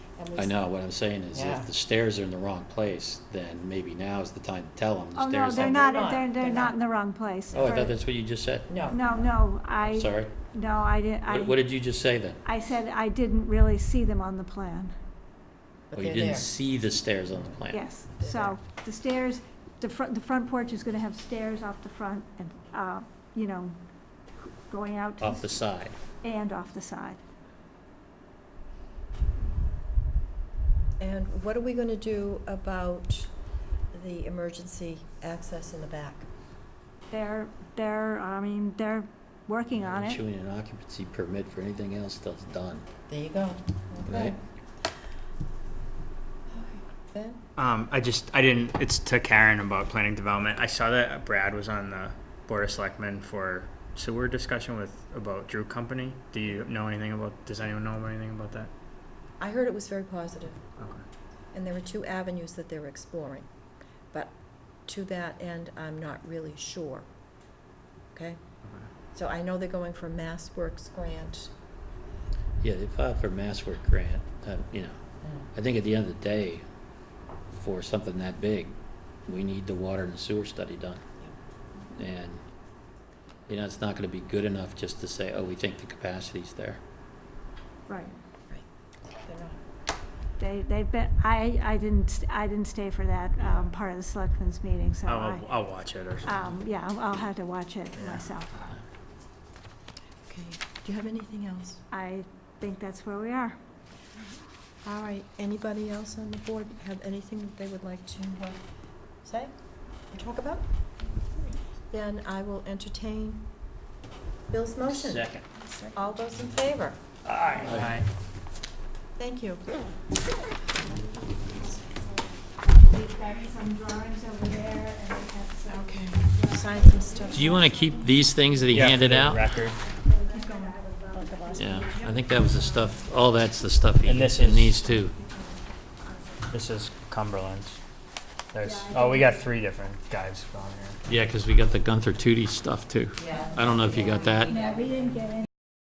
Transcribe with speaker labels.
Speaker 1: and we
Speaker 2: I know, what I'm saying is
Speaker 1: Yeah.
Speaker 2: if the stairs are in the wrong place, then maybe now is the time to tell them the
Speaker 3: Oh, no,
Speaker 2: stairs.
Speaker 3: they're
Speaker 1: like-
Speaker 3: not,
Speaker 1: They're not,
Speaker 3: they're,
Speaker 1: they're
Speaker 3: they're not
Speaker 1: not.
Speaker 3: in the wrong place.
Speaker 2: Oh, I
Speaker 3: For-
Speaker 2: thought that's what you just said.
Speaker 1: No,
Speaker 3: No, no, I,
Speaker 2: Sorry.
Speaker 3: no, I didn't,
Speaker 2: What, what
Speaker 3: I,
Speaker 2: did you just say then?
Speaker 3: I said I didn't really see them on the plan.
Speaker 1: but
Speaker 2: Oh, you
Speaker 1: they're
Speaker 2: didn't
Speaker 1: there.
Speaker 2: see the stairs on the plan?
Speaker 3: Yes,
Speaker 1: They're
Speaker 3: so the stairs, the front, the front porch is gonna have stairs off the front and, uh, you know, going out to
Speaker 2: Off
Speaker 3: the
Speaker 2: the
Speaker 3: s-
Speaker 2: side?
Speaker 3: and off the side.
Speaker 1: And what are we gonna do about the emergency access in the back?
Speaker 3: They're, they're, I mean, they're working on it.
Speaker 2: Issuing an occupancy permit for anything else that's done,
Speaker 1: There you go.
Speaker 2: right?
Speaker 1: Okay. Ben?
Speaker 4: Um, I just, I didn't, it's to Karen about planning development. I saw that Brad was on the Board of Selectmen for sewer discussion with, about Drew Company. Do you know anything about, does anyone know anything about that?
Speaker 1: I heard it was very positive,
Speaker 4: Okay.
Speaker 1: and there were two avenues that they were exploring. But to that end, I'm not really sure. Okay? So I know they're going for Mass Works grant.
Speaker 2: Yeah, they filed for mass work grant, uh, you know.
Speaker 1: Mm.
Speaker 2: I think at the end of the day, for something that big, we need the water and sewer study done. And, you know, it's not gonna be good enough just to say, oh, we think the capacity's there.
Speaker 3: Right.
Speaker 1: They're not.
Speaker 3: They, they've been, I, I didn't, I didn't stay for that, um, part of the selectmen's meeting,
Speaker 2: Oh,
Speaker 3: so I,
Speaker 4: I'll, I'll watch it or something.
Speaker 3: um, yeah, I'll- I'll have to watch it
Speaker 4: Yeah.
Speaker 3: myself.
Speaker 1: Okay, do you have anything else?
Speaker 3: I think that's where we are.
Speaker 1: All right, anybody else on the board have anything that they would like to uh, say or talk about? Then I will entertain Bill's motion.
Speaker 2: Second.
Speaker 1: All those in favor?
Speaker 4: Aye.
Speaker 1: Thank you.
Speaker 3: We've got some drawings over there and we have some.
Speaker 1: Okay, sign some stuff.
Speaker 2: Do you wanna keep these things that he
Speaker 4: Yeah, for
Speaker 2: handed
Speaker 4: the
Speaker 2: out?
Speaker 4: Record.
Speaker 2: Yeah, I think that was the stuff, all that's the stuff he,
Speaker 4: And this
Speaker 2: and
Speaker 4: is-
Speaker 2: these too.
Speaker 4: This is Cumberland's. There's, oh, we got three different guys on here.
Speaker 2: Yeah, 'cause we got the Gunther Tootie stuff too.
Speaker 1: Yeah.
Speaker 2: I don't know if you got that.
Speaker 3: Yeah, we didn't get any.